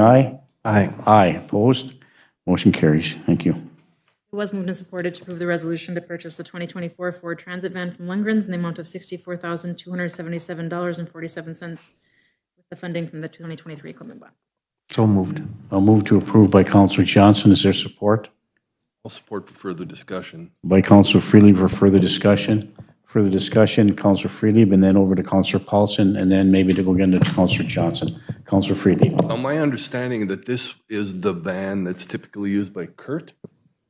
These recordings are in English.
Aye? Aye. Aye. Opposed? Motion carries. Thank you. It was moved and supported to approve the resolution to purchase the 2024 Ford Transit van from Lundgren's in the amount of $64,277.47 with the funding from the 2023 equipment bond. So moved. I'll move to approve by Counselor Johnson. Is there support? I'll support for further discussion. By Counselor Freely for further discussion. Further discussion, Counselor Freely, and then over to Counselor Paulson, and then maybe to go again to Counselor Johnson. Counselor Freely. Now, my understanding that this is the van that's typically used by Kurt,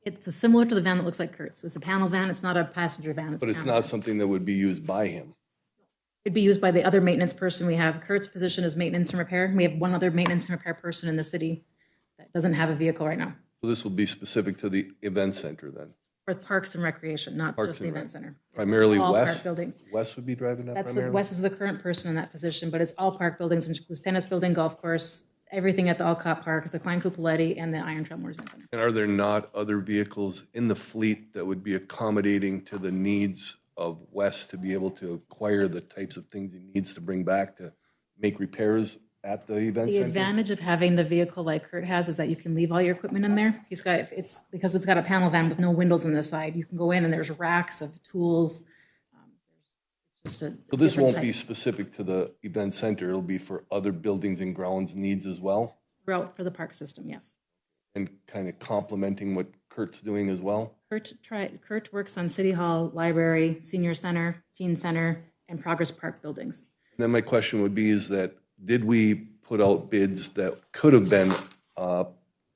It's a similar to the van that looks like Kurt's. It's a panel van. It's not a passenger van. but a it's panel. not something that would be used by him. It'd be used by the other maintenance person we have. Kurt's position is maintenance and repair. We have one other maintenance and repair person in the city that doesn't have a vehicle right now So this will be specific to the event center then, for parks and recreation, not Parks just the and Rec. event center. primarily All Wes. park buildings. Wes would be driving that That's the, primarily? Wes is the current person in that position, but it's all park buildings, which includes tennis building, golf course, everything at the Alcott Park, the Klein Cupoletti, and the Iron Trail Moorsman Center. And are there not other vehicles in the fleet that would be accommodating to the needs of Wes to be able to acquire the types of things he needs to bring back to make repairs at the event The center? advantage of having the vehicle like Kurt has is that you can leave all your equipment in there. He's got, it's, because it's got a panel van with no windows on the side, you can go in and there's racks of tools. um, Just a. So this different won't be type. specific to the event center, it'll be for other buildings and grounds needs as well? Route for the park system, yes. and kind of complementing what Kurt's doing as well. Kurt try, Kurt works on City Hall, Library, Senior Center, Teen Center, and Progress Park buildings. And then my question would be is that, did we put out bids that could have been, uh,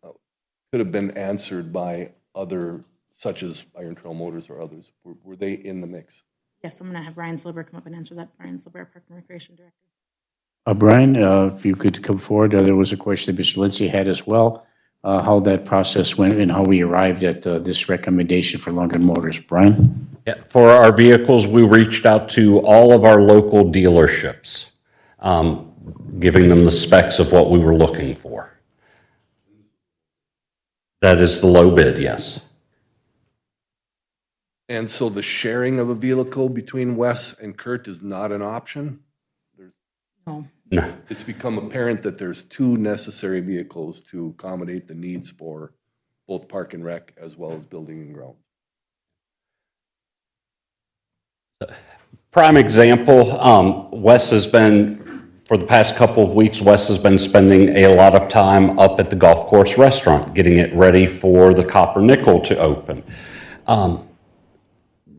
could have been answered by other, such as Iron Trail Motors or others? Were- Were they in the mix? Yes, I'm going to have Ryan Silber come up and answer that. Ryan Silber, Park and Recreation Director. Uh, Brian, uh, if you could come forward, uh, there was a question that Mr. Lindsay had as well, uh, how that process went and how we arrived at uh, this recommendation for Lundgren Motors. Brian? Yeah, For our vehicles, we reached out to all of our local dealerships, um, giving them the specs of what we were looking for. That is the low bid, yes. And so the sharing of a vehicle between Wes and Kurt is not an option? No, No, It's become apparent that there's two necessary vehicles to accommodate the needs for both Park and Rec as well as Building and Grounds. Prime example, um, Wes has been, for the past couple of weeks, Wes has been spending a lot of time up at the golf course restaurant, getting it ready for the Copper Nickel to open. Um,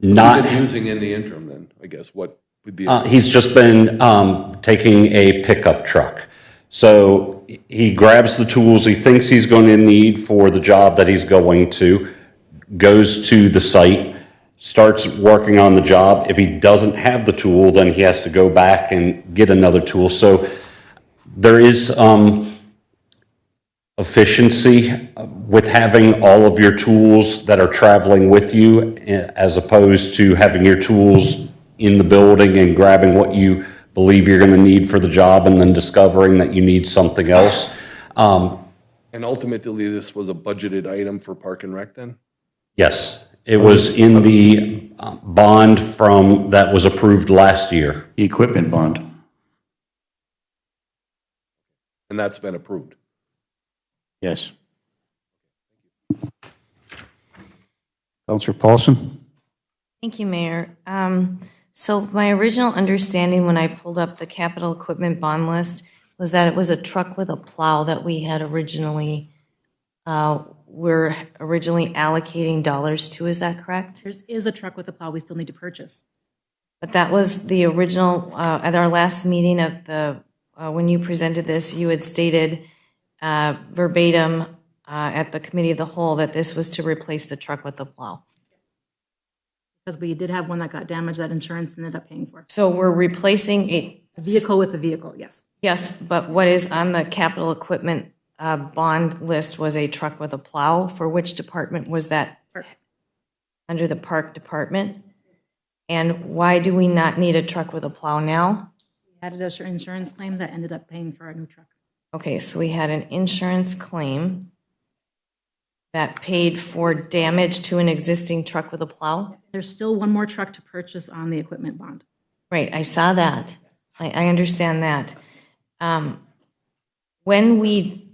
Not. been using in the interim then, I guess, what would be, Uh, He's just been um, taking a pickup truck. So he grabs the tools he thinks he's going to need for the job that he's going to, goes to the site, starts working on the job. If he doesn't have the tool, then he has to go back and get another tool. So there is um, efficiency with having all of your tools that are traveling with you eh, as opposed to having your tools in the building and grabbing what you believe you're going to need for the job and then discovering that you need something else. Um, and ultimately, this was a budgeted item for Park and Rec then? Yes, it was in the uh, bond from, that was approved last year. The equipment bond. And that's been approved. Yes. Counselor Paulson? Thank you, Mayor. Um, So my original understanding when I pulled up the capital equipment bond list was that it was a truck with a plow that we had originally, uh, we're originally allocating dollars to, is that correct? there is a truck with a plow we still need to purchase. But that was the original, uh, at our last meeting of the, uh, when you presented this, you had stated uh, verbatim uh, at the committee of the whole that this was to replace the truck with the plow. Because we did have one that got damaged that insurance ended up paying for. So we're replacing a The vehicle with the vehicle, yes. Yes, but what is on the capital equipment uh, bond list was a truck with a plow. For which department was that? Under the park department? And why do we not need a truck with a plow now? We Added a sur- insurance claim that ended up paying for our new truck. Okay, so we had an insurance claim that paid for damage to an existing truck with a plow? There's still one more truck to purchase on the equipment bond. Right, I saw that. I, I understand that. Um, When we